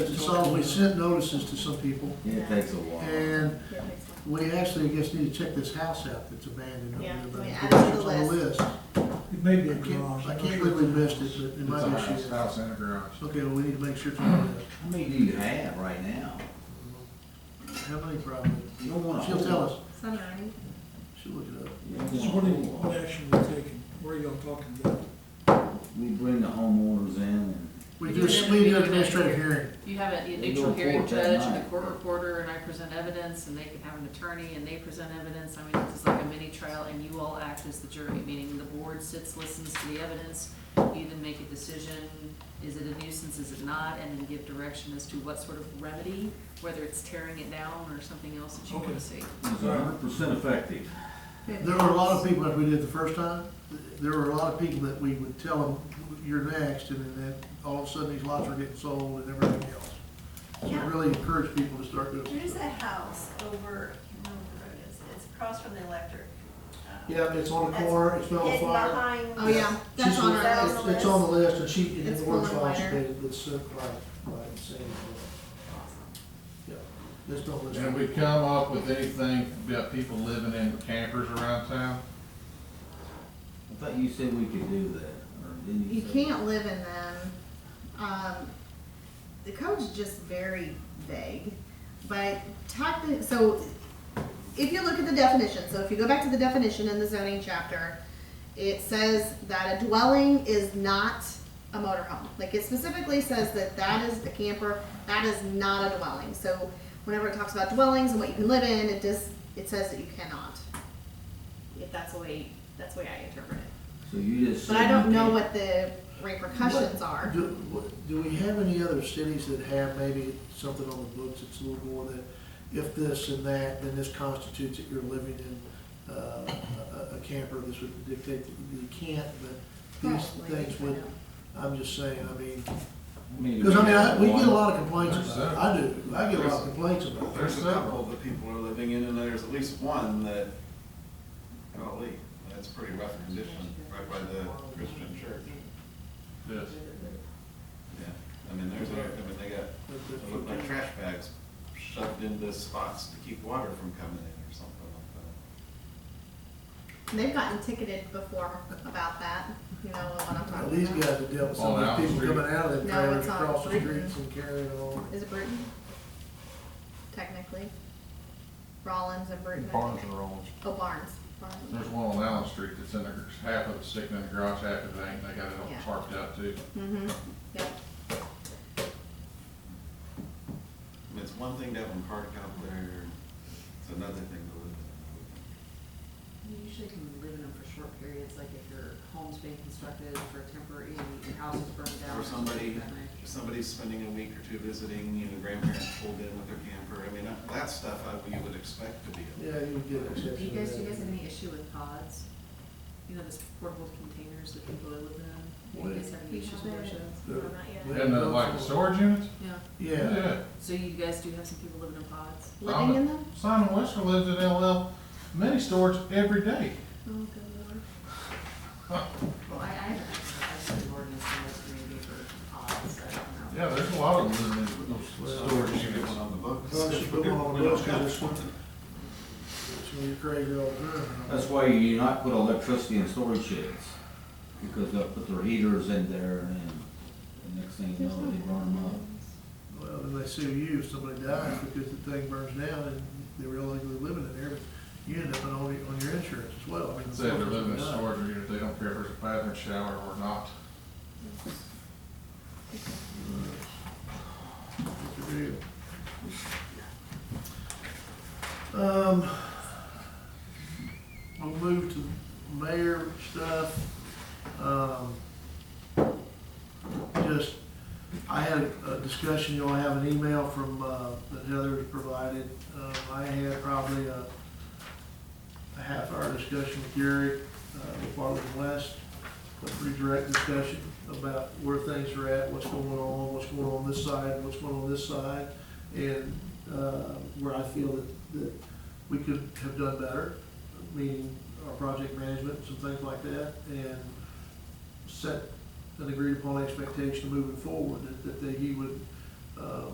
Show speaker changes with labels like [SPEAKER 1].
[SPEAKER 1] so we sent notices to some people,
[SPEAKER 2] Yeah, it takes a while.
[SPEAKER 1] and we actually, I guess, need to check this house out that's abandoned. over there,
[SPEAKER 3] Yeah,
[SPEAKER 1] but
[SPEAKER 3] we
[SPEAKER 1] it's
[SPEAKER 3] added to the
[SPEAKER 1] on the
[SPEAKER 3] list.
[SPEAKER 1] list.
[SPEAKER 4] It may be
[SPEAKER 1] I
[SPEAKER 4] a
[SPEAKER 1] can't,
[SPEAKER 4] garage.
[SPEAKER 1] I can't believe we missed it, but it
[SPEAKER 5] It's
[SPEAKER 1] might
[SPEAKER 5] a
[SPEAKER 1] be.
[SPEAKER 5] house,
[SPEAKER 1] shit.
[SPEAKER 5] house and a garage.
[SPEAKER 1] Okay, well, we need to make sure it's on the list.
[SPEAKER 2] How many do you have right now?
[SPEAKER 1] How many probably?
[SPEAKER 2] You don't want to.
[SPEAKER 1] She'll tell us,
[SPEAKER 3] Some ninety.
[SPEAKER 1] she'll look it up.
[SPEAKER 4] So what are you, what action are you taking? What are y'all talking about?
[SPEAKER 2] We bring the homeowners in and.
[SPEAKER 1] We do, a- we do an administrative hearing.
[SPEAKER 6] You have a- a
[SPEAKER 2] They go
[SPEAKER 6] neutral
[SPEAKER 2] to
[SPEAKER 6] hearing
[SPEAKER 2] court that
[SPEAKER 6] judge and a
[SPEAKER 2] night.
[SPEAKER 6] court reporter, and I present evidence, and they can have an attorney, and they present evidence. I mean, it's like a mini trial, and you all act as the jury, meaning the board sits, listens to the evidence. You then make a decision, is it a nuisance, is it not, and then give direction as to what sort of remedy, whether it's tearing it down or something else that you want
[SPEAKER 4] Okay.
[SPEAKER 6] to see.
[SPEAKER 2] It's a hundred percent effective.
[SPEAKER 1] There were a lot of people, like we did the first time, there were a lot of people that we would tell them, you're next, and then all of a sudden, these lots are getting sold and everything else. So we
[SPEAKER 3] Yeah.
[SPEAKER 1] really encourage people to start doing
[SPEAKER 3] There's
[SPEAKER 1] stuff.
[SPEAKER 3] a house over, I can't remember what road it is, it's across from the electric. uh,
[SPEAKER 1] Yeah, it's on the
[SPEAKER 3] that's
[SPEAKER 1] corner, it's on
[SPEAKER 3] hidden
[SPEAKER 1] fire.
[SPEAKER 3] behind-
[SPEAKER 1] Oh, yeah.
[SPEAKER 7] that's on
[SPEAKER 3] our
[SPEAKER 1] It's-
[SPEAKER 3] list.
[SPEAKER 1] It's on the list, and she, and
[SPEAKER 7] It's
[SPEAKER 1] the word's
[SPEAKER 7] going
[SPEAKER 1] on, she
[SPEAKER 7] wider.
[SPEAKER 1] made it, it's, uh, right, right, it's saying, yeah, it's on the list.
[SPEAKER 5] And we come up with anything about people living in campers around town?
[SPEAKER 2] I thought you said we could do that, or didn't you?
[SPEAKER 7] You
[SPEAKER 2] say-
[SPEAKER 7] can't live in them. Um, the code's just very vague, but technically, so if you look at the definition, so if you go back to the definition in the zoning chapter, it says that a dwelling is not a motorhome. Like it specifically says that that is a camper, that is not a dwelling. So whenever it talks about dwellings and what you can live in, it just, it says that you cannot. If that's the way, that's the way I interpret it.
[SPEAKER 2] So you just.
[SPEAKER 7] But
[SPEAKER 2] said
[SPEAKER 7] I don't
[SPEAKER 2] you
[SPEAKER 7] know
[SPEAKER 2] can't-
[SPEAKER 7] what the repercussions are.
[SPEAKER 1] Do, what- do we have any other cities that have maybe something on the books that's a little more that, if this and that, then this constitutes that you're living in, uh, a, a camper, this would dictate that you can't, but these
[SPEAKER 7] Probably,
[SPEAKER 1] things
[SPEAKER 7] I
[SPEAKER 1] would,
[SPEAKER 7] know.
[SPEAKER 1] I'm just saying, I mean,
[SPEAKER 2] I mean,
[SPEAKER 1] because I mean, I, we get a
[SPEAKER 2] one-
[SPEAKER 1] lot of complaints about it, I do, I get a lot of complaints about it.
[SPEAKER 8] There's a couple that people are living in, and there's at least one that, golly, that's pretty rough condition, right by the Christian church.
[SPEAKER 5] Yes.
[SPEAKER 8] Yeah, I mean, there's, a- I mean, they got, it looked like trash bags shoved into spots to keep water from coming in or something like that.
[SPEAKER 7] They've gotten ticketed before about that, you know what I'm
[SPEAKER 1] Now,
[SPEAKER 7] talking
[SPEAKER 1] These
[SPEAKER 7] about.
[SPEAKER 1] guys have dealt with some
[SPEAKER 5] On
[SPEAKER 1] of
[SPEAKER 5] Allen
[SPEAKER 1] these people
[SPEAKER 5] Street.
[SPEAKER 1] coming out of the
[SPEAKER 7] No,
[SPEAKER 1] trailers
[SPEAKER 7] it's on
[SPEAKER 1] across the
[SPEAKER 7] Britain.
[SPEAKER 1] streets and carrying on.
[SPEAKER 7] Is it Bruton? Technically. Rollins and Bruton. I
[SPEAKER 5] Barns
[SPEAKER 7] think.
[SPEAKER 5] and rolls.
[SPEAKER 7] Oh, Barnes. Barnes.
[SPEAKER 5] There's one on Allen Street that's in the, half of it's sticking in the garage, half of it ain't, they got it all
[SPEAKER 7] Yeah.
[SPEAKER 5] tarped out too.
[SPEAKER 7] Mm-hmm, yep.
[SPEAKER 8] I mean, it's one thing to have them parked out there, it's another thing to live in.
[SPEAKER 6] You usually can live in them for short periods, like if your home's being constructed for temporary, your house is burned down.
[SPEAKER 8] Or somebody, if somebody's spending a week or two visiting, you know, grandparents pulled in with their camper, I mean, uh, that stuff I, you would expect to be.
[SPEAKER 1] Yeah, you get an exception.
[SPEAKER 6] Do you
[SPEAKER 1] to
[SPEAKER 6] guys,
[SPEAKER 1] that.
[SPEAKER 6] do you guys have any issue with pods? You know, those portable containers that people live in? Do you guys have any issues with those?
[SPEAKER 1] Yeah.
[SPEAKER 3] No, not yet.
[SPEAKER 1] Yeah.
[SPEAKER 5] And the, like the storage units?
[SPEAKER 6] Yeah,
[SPEAKER 1] Yeah.
[SPEAKER 6] so you guys do have some people living in pods?
[SPEAKER 7] Living in them?
[SPEAKER 5] Simon Wester lives at LL mini storage every day.
[SPEAKER 7] Oh, good lord.
[SPEAKER 6] Well, I, I haven't, I've seen an ordinance in this community for pods, I don't know.
[SPEAKER 5] Yeah, there's a lot of them living in those
[SPEAKER 1] Well,
[SPEAKER 5] storage
[SPEAKER 8] Should get
[SPEAKER 5] units.
[SPEAKER 8] one on the books.
[SPEAKER 1] Well, just put one on the
[SPEAKER 8] We don't
[SPEAKER 1] books, 'cause
[SPEAKER 8] have
[SPEAKER 1] it's-
[SPEAKER 8] one.
[SPEAKER 1] So you're crazy all the time.
[SPEAKER 2] That's why you do not put electricity in storage sheds, because they'll put their heaters in there and then the next thing you know, they burn them up.
[SPEAKER 1] Well, then they sue you if somebody dies because the thing burns down and they're illegally living in there, but you end up on, all your- on your insurance as well. I mean,
[SPEAKER 5] Say if they're living in a
[SPEAKER 1] Yeah.
[SPEAKER 5] storage unit, they don't care if there's a bathroom shower or not.
[SPEAKER 1] It's a deal. Um, we'll move to mayor stuff. Um, just, I had a discussion, you know, I have an email from, uh, that Heather provided. Um, I had probably a, a half hour discussion with Gary, uh, with Bartlett West, a pretty direct discussion about where things are at, what's going on, what's going on this side, what's going on this side, and, uh, where I feel that, that we could have done better, meaning our project management, some things like that, and set an agreed upon expectation moving forward, that, that he would, um,